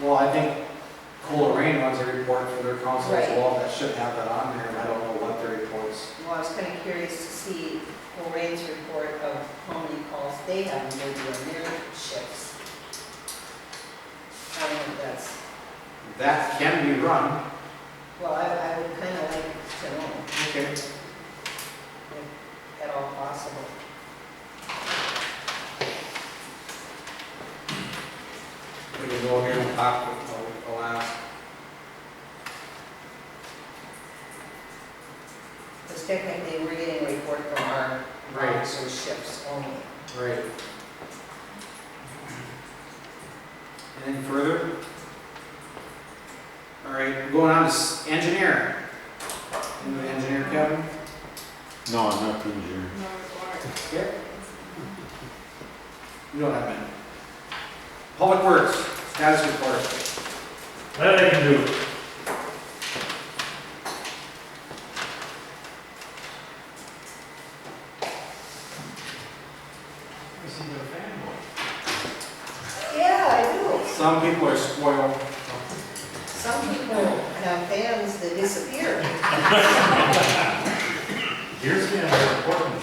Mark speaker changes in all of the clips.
Speaker 1: Well, I think Cool Rain runs a report for their council as
Speaker 2: Right.
Speaker 1: well, that should have that on there, and I don't know what their reports.
Speaker 2: Well, I was kind of curious to see Lorraine's report of how many calls they have maybe on their shifts. I don't know if that's,
Speaker 1: That can be run.
Speaker 2: well, I, I would kind of like to know
Speaker 1: Okay.
Speaker 2: if at all possible.
Speaker 1: We can go here and talk with the- the last.
Speaker 2: Because technically, we're getting a report from our
Speaker 1: Right.
Speaker 2: officers' shifts only.
Speaker 1: Right. Anything further? All right, going on to s- engineer. Into the engineer, Kevin?
Speaker 3: No, I'm not the engineer.
Speaker 1: Here. You don't have many. Public Works, status report.
Speaker 4: That I can do.
Speaker 2: Yeah, I do.
Speaker 1: Some people are spoiled.
Speaker 2: Some people have fans that disappear.
Speaker 4: Deer stands are important.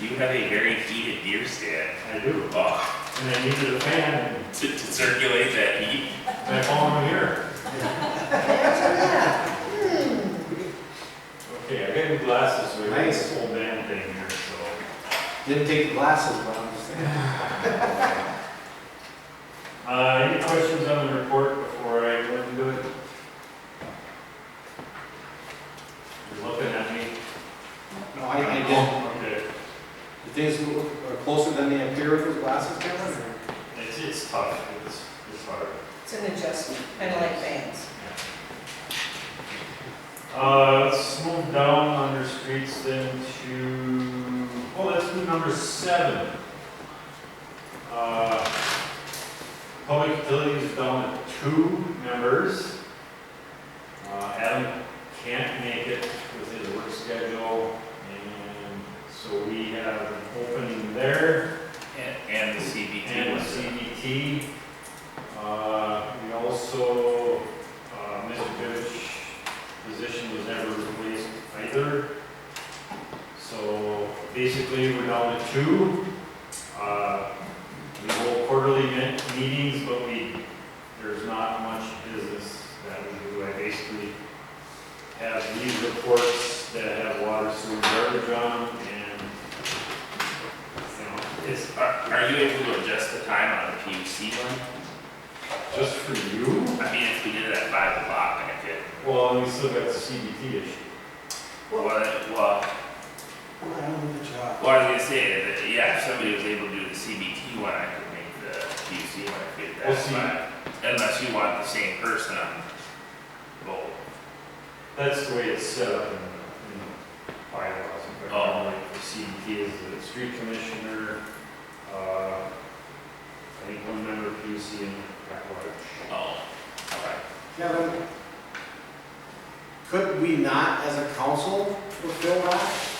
Speaker 5: You have a very heated deer stand
Speaker 4: I do.
Speaker 5: uh,
Speaker 4: And I needed a fan
Speaker 5: to, to circulate that heat.
Speaker 4: and I found one here.
Speaker 2: Imagine that. Hmm.
Speaker 4: Okay, I got new glasses, we got
Speaker 1: Nice.
Speaker 4: this whole damn thing here, so.
Speaker 1: Didn't take the glasses, but I'm just saying.
Speaker 4: Uh, any questions on the report before I go into it? You're looking at me.
Speaker 1: No, I, I didn't.
Speaker 4: Okay,
Speaker 1: The things look are closer than they appear with those glasses, Kevin? or-
Speaker 4: it's, it's tough, it's, it's hard.
Speaker 2: It's an adjustment, kind of like fans.
Speaker 4: Uh, let's move down under streets then to, oh, let's move number seven. Uh, Public utilities down to two members. Uh, Adam can't make it with his work schedule, and so we have an opening there.
Speaker 5: And, and the CBT
Speaker 4: And
Speaker 5: was,
Speaker 4: CBT. Uh, We also, uh, Mr. Goodrich's position was never replaced either. So basically, we're down to two. Uh, We hold quarterly me- meetings, but we, there's not much business that we do. I basically have these reports that have water, sewer, garbage on, and, you know,
Speaker 5: is, are, are you able to adjust the time on the PUC one?
Speaker 4: Just for you?
Speaker 5: I mean, if we did it at five o'clock, I could,
Speaker 4: Well, we still got the CBT issue.
Speaker 5: well, well,
Speaker 1: I don't know the job.
Speaker 5: well, I was gonna say, that, yeah, if somebody was able to do the CBT one, I could make the PUC one, I could,
Speaker 4: We'll
Speaker 5: that's
Speaker 4: see.
Speaker 5: fine. Unless you want the same person on both.
Speaker 4: That's the way it's set up in, in bylaws. if I remember right. The CBT is the street commissioner, uh, I think one member of PUC and at large.
Speaker 5: Oh, alright.
Speaker 1: Kevin, could we not, as a council, fulfill that?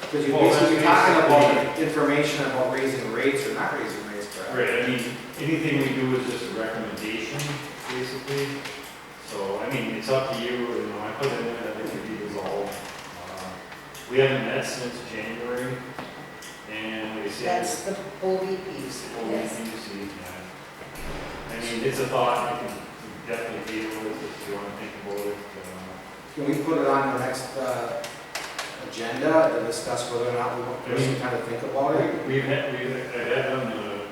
Speaker 1: Because you're
Speaker 4: Well, that's
Speaker 1: basically talking about
Speaker 4: basically-
Speaker 1: information about raising rates or not raising rates, correct?
Speaker 4: Right, I mean, anything we do is just a recommendation, basically. So, I mean, it's up to you, you know, I put in there that it could be dissolved. Uh, We haven't met since January, and we said.
Speaker 2: That's the Bobby piece.
Speaker 4: Well, we can just leave that. I mean, it's a thought, you can definitely deal with it if you want to think about it. uh,
Speaker 1: Can we put it on the next, uh, agenda to discuss whether or not we want, we should kind of think about it?
Speaker 4: uh, We've had, we've I've had on the,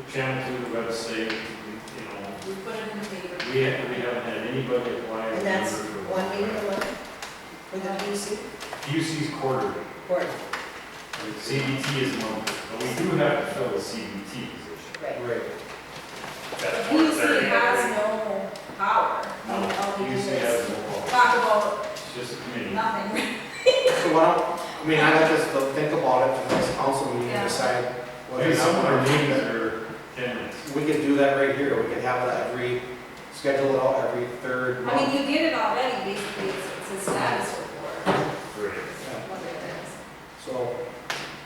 Speaker 4: the channel through the website, you know,
Speaker 6: We put it in the paper.
Speaker 4: we haven't, we haven't had anybody apply.
Speaker 2: And that's
Speaker 4: for- for-
Speaker 2: one meeting a month for the PC
Speaker 4: UC's quarter,
Speaker 2: court,
Speaker 4: CBT is monthly, but we do have to fill the CBT position.
Speaker 2: right?
Speaker 1: Right.
Speaker 5: That's one
Speaker 6: PUC
Speaker 5: thirty.
Speaker 6: has no power. I mean,
Speaker 2: Oh,
Speaker 6: all we do
Speaker 4: UC
Speaker 6: is
Speaker 4: has no law,
Speaker 6: talk about
Speaker 4: it's just a committee.
Speaker 6: nothing.
Speaker 1: So why don't, I mean, I'd like us to think about it for the next council meeting and
Speaker 6: Yeah.
Speaker 1: decide whether or
Speaker 4: Maybe some of our
Speaker 1: not. we
Speaker 4: meetings
Speaker 1: want
Speaker 4: are ten minutes.
Speaker 1: to- We could do that right here, we could have that every, schedule it out every third
Speaker 6: I mean,
Speaker 1: month.
Speaker 6: you get it already, basically, it's it's a status report,
Speaker 4: Great.
Speaker 1: Yeah.
Speaker 6: whether it is.
Speaker 1: So,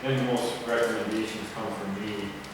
Speaker 4: Then most recommendations come from me,